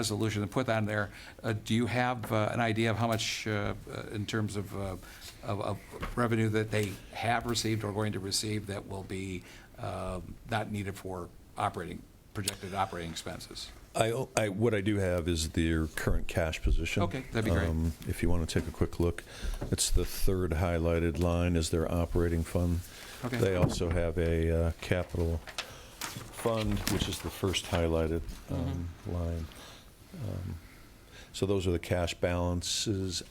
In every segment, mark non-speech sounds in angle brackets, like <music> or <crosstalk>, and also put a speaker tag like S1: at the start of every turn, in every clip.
S1: resolution and put that in there. Uh, Do you have uh, an idea of how much, uh, uh, in terms of, uh, of of revenue that they have received or going to receive that will be uh, not needed for operating, projected operating expenses?
S2: I, I- what I do have is their current cash position.
S1: Okay, that'd be great.
S2: Um, If you want to take a quick look, it's the third highlighted line is their operating fund.
S1: Okay.
S2: They also have a uh, capital fund, which is the first highlighted um,
S1: Mm-hmm.
S2: line. Um, So those are the cash balances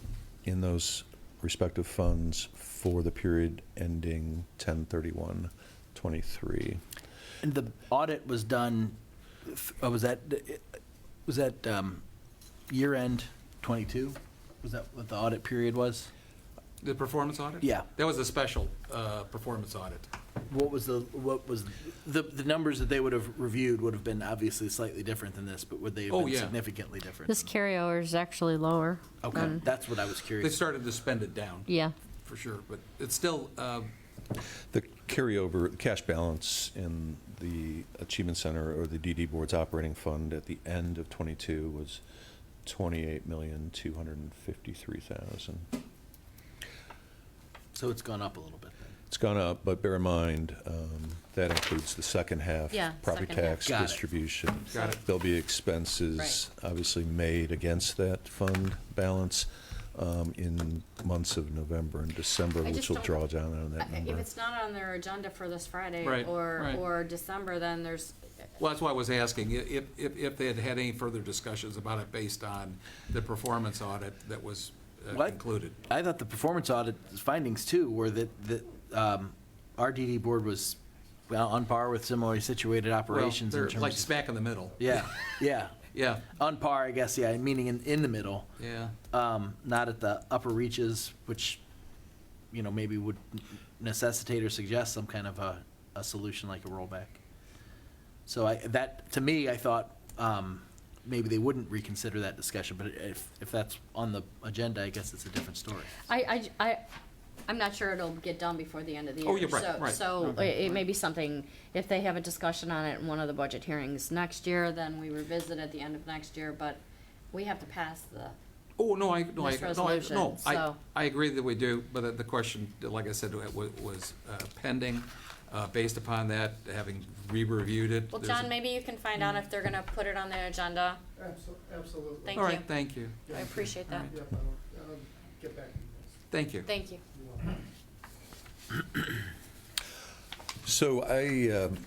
S2: in those respective funds for the period ending 10/31/23.
S3: And the audit was done, f- uh, was that, was that um, year-end '22? Was that what the audit period was?
S1: The performance audit?
S3: Yeah.
S1: That was a special uh, performance audit.
S3: What was the, what was, the, the numbers that they would have reviewed would have been obviously slightly different than this, but would they have
S1: Oh,
S3: been
S1: yeah.
S3: significantly different?
S4: This
S3: than-
S4: carryover is actually lower.
S3: Okay,
S4: than-
S3: that's what I was
S1: They
S3: curious.
S1: started to spend it down.
S4: Yeah.
S1: For sure, but it's still, uh,
S2: The carryover, the cash balance in the Achievement Center or the DD Board's operating fund at the end of '22 was $28,253,000.
S3: So it's gone up a little bit. then.
S2: It's gone up, but bear in mind, um, that includes the second half.
S5: Yeah,
S2: Property
S5: second half.
S2: tax
S3: Got it.
S2: distribution.
S1: Got it.
S2: There'll be expenses, obviously, made against that fund balance um, in months of November and December,
S5: I
S2: which
S5: just
S2: will
S5: don't-
S2: draw down on
S5: I-
S2: that
S5: If
S2: number.
S5: it's not on their agenda for this Friday
S1: Right,
S5: or,
S1: right.
S5: or December, then there's,
S1: well, that's why I was asking, i- if, if, if they had had any further discussions about it based on the performance audit that was uh,
S3: What?
S1: concluded.
S3: I thought the performance audit findings too were that, that um, our DD board was well, on par with similarly situated operations
S1: Well,
S3: in
S1: they're Like
S3: terms of.
S1: smack in the middle.
S3: Yeah, yeah.
S1: Yeah,
S3: On par, I guess, yeah, meaning in, in the middle,
S1: yeah.
S3: um, not at the upper reaches, which, you know, maybe would necessitate or suggest some kind of a, a solution like a rollback. So I, that, to me, I thought, um, maybe they wouldn't reconsider that discussion, but if, if that's on the agenda, I guess it's a different story.
S5: I, I j- I, am not sure it'll get done before the end of the year.
S1: Oh, yeah, right,
S5: So-
S1: right.
S5: So i- it may be something, if they have a discussion on it in one of the budget hearings next year, then we revisit at the end of next year, but we have to pass the,
S1: Oh, no, I, no, I,
S5: This
S1: no, I, no,
S5: resolution,
S1: I,
S5: so-
S1: I agree that we do, but the- the question, like I said, wa- was uh, pending. Uh, Based upon that, having re-reviewed it.
S5: well,
S1: there's a- Mm.
S5: John, maybe you can find out if they're gonna put it on their agenda.
S6: Abso- Absolutely.
S5: Thank
S1: All
S5: you.
S1: right, thank you,
S5: I appreciate that.
S6: Yep, I'll, I'll get back to you guys.
S1: thank you.
S5: Thank you.
S6: You want-
S2: So I um,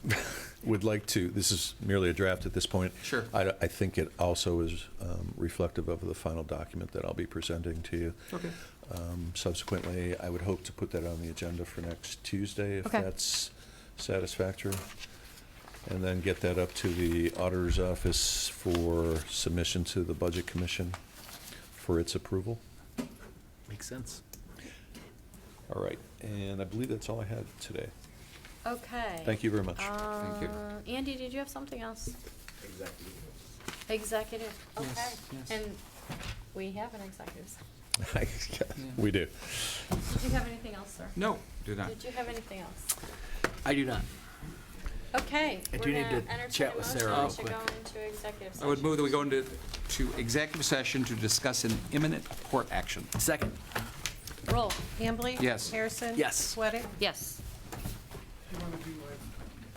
S2: <laughs> would like to, this is merely a draft at this point.
S1: Sure.
S2: I I think it also is um, reflective of the final document that I'll be presenting to you.
S1: Okay.
S2: Um, Subsequently, I would hope to put that on the agenda for next Tuesday, if
S4: Okay.
S2: that's satisfactory. And then get that up to the auditor's office for submission to the Budget Commission for its approval.
S3: Makes sense.
S2: All right, and I believe that's all I had today.
S5: Okay.
S2: Thank you very much.
S1: Thank you.
S5: Uh, Andy, did you have something else? Executive.
S1: Yes, yes.
S5: okay. And we have an executive. session.
S2: We do.
S5: Did you have anything else, sir?
S1: No, do not.
S5: Did you have anything else?
S3: I do not.
S5: Okay.
S3: I
S5: we're
S3: do need
S5: gonna
S3: to
S5: entertain
S3: chat
S5: a
S3: with
S5: motion
S3: Sarah real
S5: To
S3: quick.
S5: go into executive
S1: I would
S5: session.
S1: move that we go into, to executive session to discuss an imminent court action.
S3: Second,
S5: Roll.
S7: Hambley?
S1: Yes.
S7: Harrison?
S3: Yes.
S7: Sweattick?
S5: Yes.